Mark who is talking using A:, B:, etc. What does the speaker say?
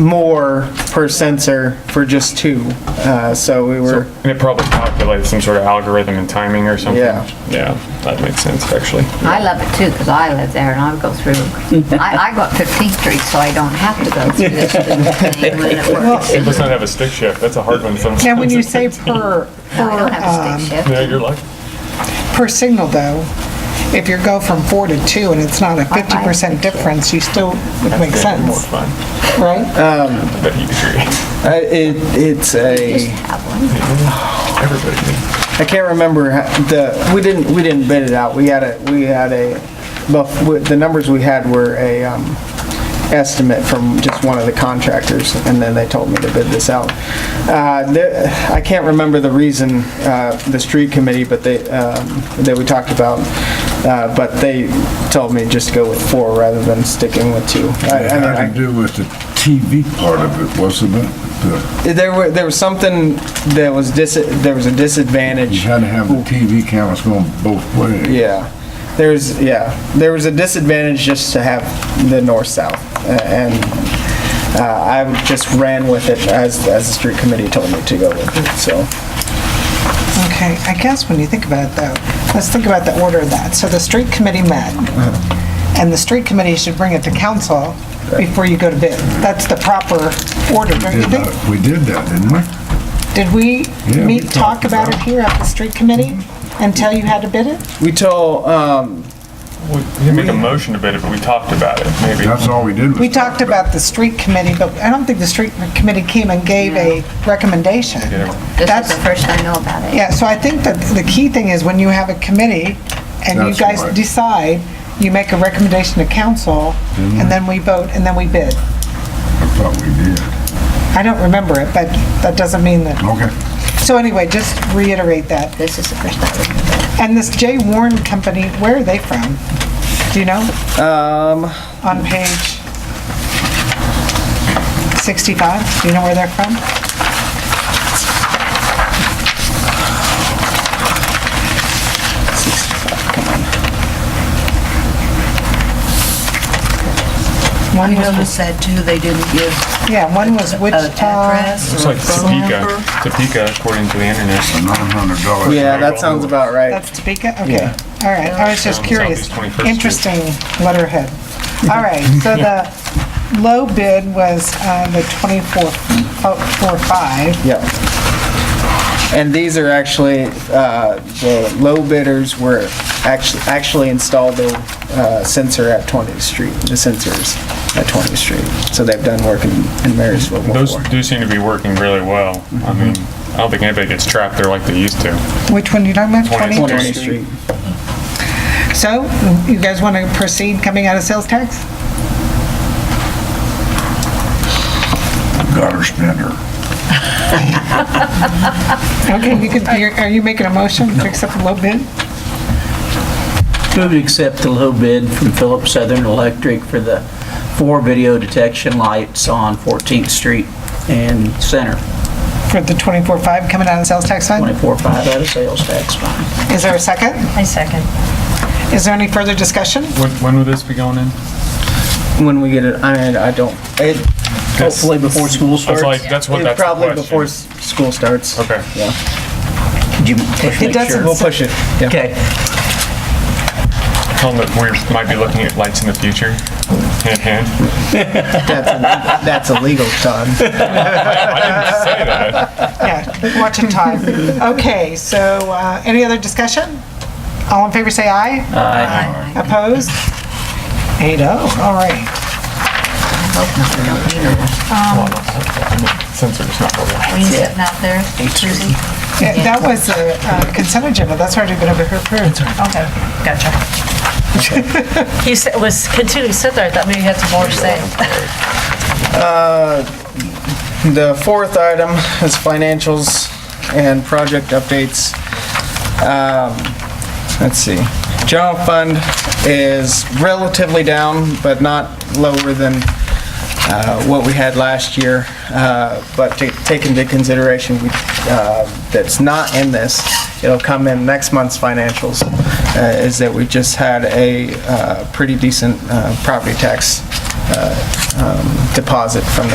A: more per sensor for just two. Uh, So we were,
B: And it probably calculated some sort of algorithm and timing or something.
A: Yeah.
B: Yeah, that makes sense, actually.
C: I love it too, because I live there and I go through, I, I go up 15th Street, so I don't have to go through this thing when it works.
B: It does not have a stick shift, that's a hard one sometimes.
D: Now, when you say per,
C: I don't have a
D: per, um,
C: stick shift.
B: Yeah, you're lucky.
D: per signal though, if you go from four to two and it's not a
C: I- I
D: fifty percent difference, you still, it makes
B: Yeah, More
D: sense,
B: fun,
E: Uh,
D: right?
B: I bet you agree.
A: uh, it, it's
C: Just
A: a,
C: have one.
B: Everybody needs.
A: I can't remember how- the, we didn't, we didn't bid it out. We had a, we had a, but with- the numbers we had were a um, estimate from just one of the contractors, and then they told me to bid this out. Uh, the- I can't remember the reason, uh, the street committee, but they, um, that we talked about, uh, but they told me just to go with four rather than sticking with two. I-
E: It
A: I mean, I-
E: had to do with the TV part of it, wasn't it? The-
A: There were, there was something that was dis, there was a
E: You
A: disadvantage.
E: had to have the TV cameras going both ways.
A: Yeah. There's, yeah, there was a disadvantage just to have the north-south. a- And uh, I just ran with it as, as the street committee told me to go with it, so.
D: Okay, I guess when you think about it though, let's think about the order of that. So the street committee met,
E: Uh-huh.
D: and the street committee should bring it to council before you go to bid. That's the proper order, don't you
E: Did
D: think?
E: that- We did that, didn't we?
D: Did we
E: Yeah, we
D: meet, talk
E: talked
D: about
E: about Mm-hmm.
D: it here at the street committee and tell you how to bid it?
A: We told, um,
B: We didn't make a motion to bid it, but we talked about it, maybe.
E: That's all we did was.
D: We talked about the street committee, but I don't think the street committee came and gave a recommendation.
C: This is
D: That's-
C: the first I know about it.
D: Yeah, so I think that the key thing is when you have a committee and you
E: That's
D: guys
E: right.
D: decide, you make a recommendation to council, and then we vote, and then we bid.
E: I thought we did.
D: I don't remember it, but that doesn't mean that,
E: Okay.
D: so anyway, just reiterate that.
C: This is the first I would.
D: And this J. Warren Company, where are they from? Do you know? Um. On page 65, do you know where they're from?
F: I
D: One was,
F: noticed that too, they didn't give
D: yeah, one was uh,
F: an
D: Wichita,
F: address
B: It's
F: or
B: like
F: a phone
B: Topeka,
F: number.
B: Topeka according to the internet.
E: A nine hundred dollars.
A: yeah, that sounds about right.
D: that's Topeka, okay. All right, I was just
B: Um,
D: curious.
B: Southeast 21st Street.
D: Interesting letterhead. All right, so the low bid was uh, the 24, oh, four five.
A: Yep. And these are actually, uh, the low bidders were actually, actually installed the uh, sensor at 20th Street, the sensors at 20th Street. So they've done work in in Marysville before.
B: Those do seem to be working really well. I mean, I don't think anybody gets trapped there like they used to.
D: Which one you talking about?
B: 20th
D: 20?
A: 20th Street.
D: So, you guys want to proceed coming out of sales tax?
E: Gutter spinner.
D: Okay, you can, you're- are you making a motion to accept the low bid?
G: Move to accept the low bid from Phillips Southern Electric for the four video detection lights on 14th Street and Center,
D: For the 24.5 coming out of sales tax fund?
G: 24.5 out of sales tax fund.
D: Is there a second?
F: I second.
D: Is there any further discussion?
B: When, when would this be going in?
A: when we get it, I, I don't, it,
G: Hopefully before school
B: That's like,
G: starts.
B: that's what,
A: it
B: that's the
A: probably before
B: question.
A: s- school starts.
B: Okay.
G: Did you push
D: It
G: make
D: doesn't-
G: sure?
A: We'll push it, yeah.
G: Okay,
B: Tell them that we might be looking at lights in the future. Hand, hand.
A: That's illegal, Todd.
B: I didn't say that.
D: Yeah, watch and time. Okay, so, uh, any other discussion? All in favor, say aye. Aye. Opposed? Eight oh, all right.
B: Sensor's not working.
C: Are you sitting out there, Susie?
D: Yeah, That was a uh, consent agenda, that's already been approved.
F: Okay, gotcha. He said, was continuing to sit there, I thought maybe he had some more to say.
A: The fourth item is financials and project updates. Um, Let's see. General fund is relatively down, but not lower than uh, what we had last year. Uh, But to take into consideration, we, uh, that's not in this, it'll come in next month's financials, uh, is that we just had a uh, pretty decent uh, property tax uh, um, deposit from the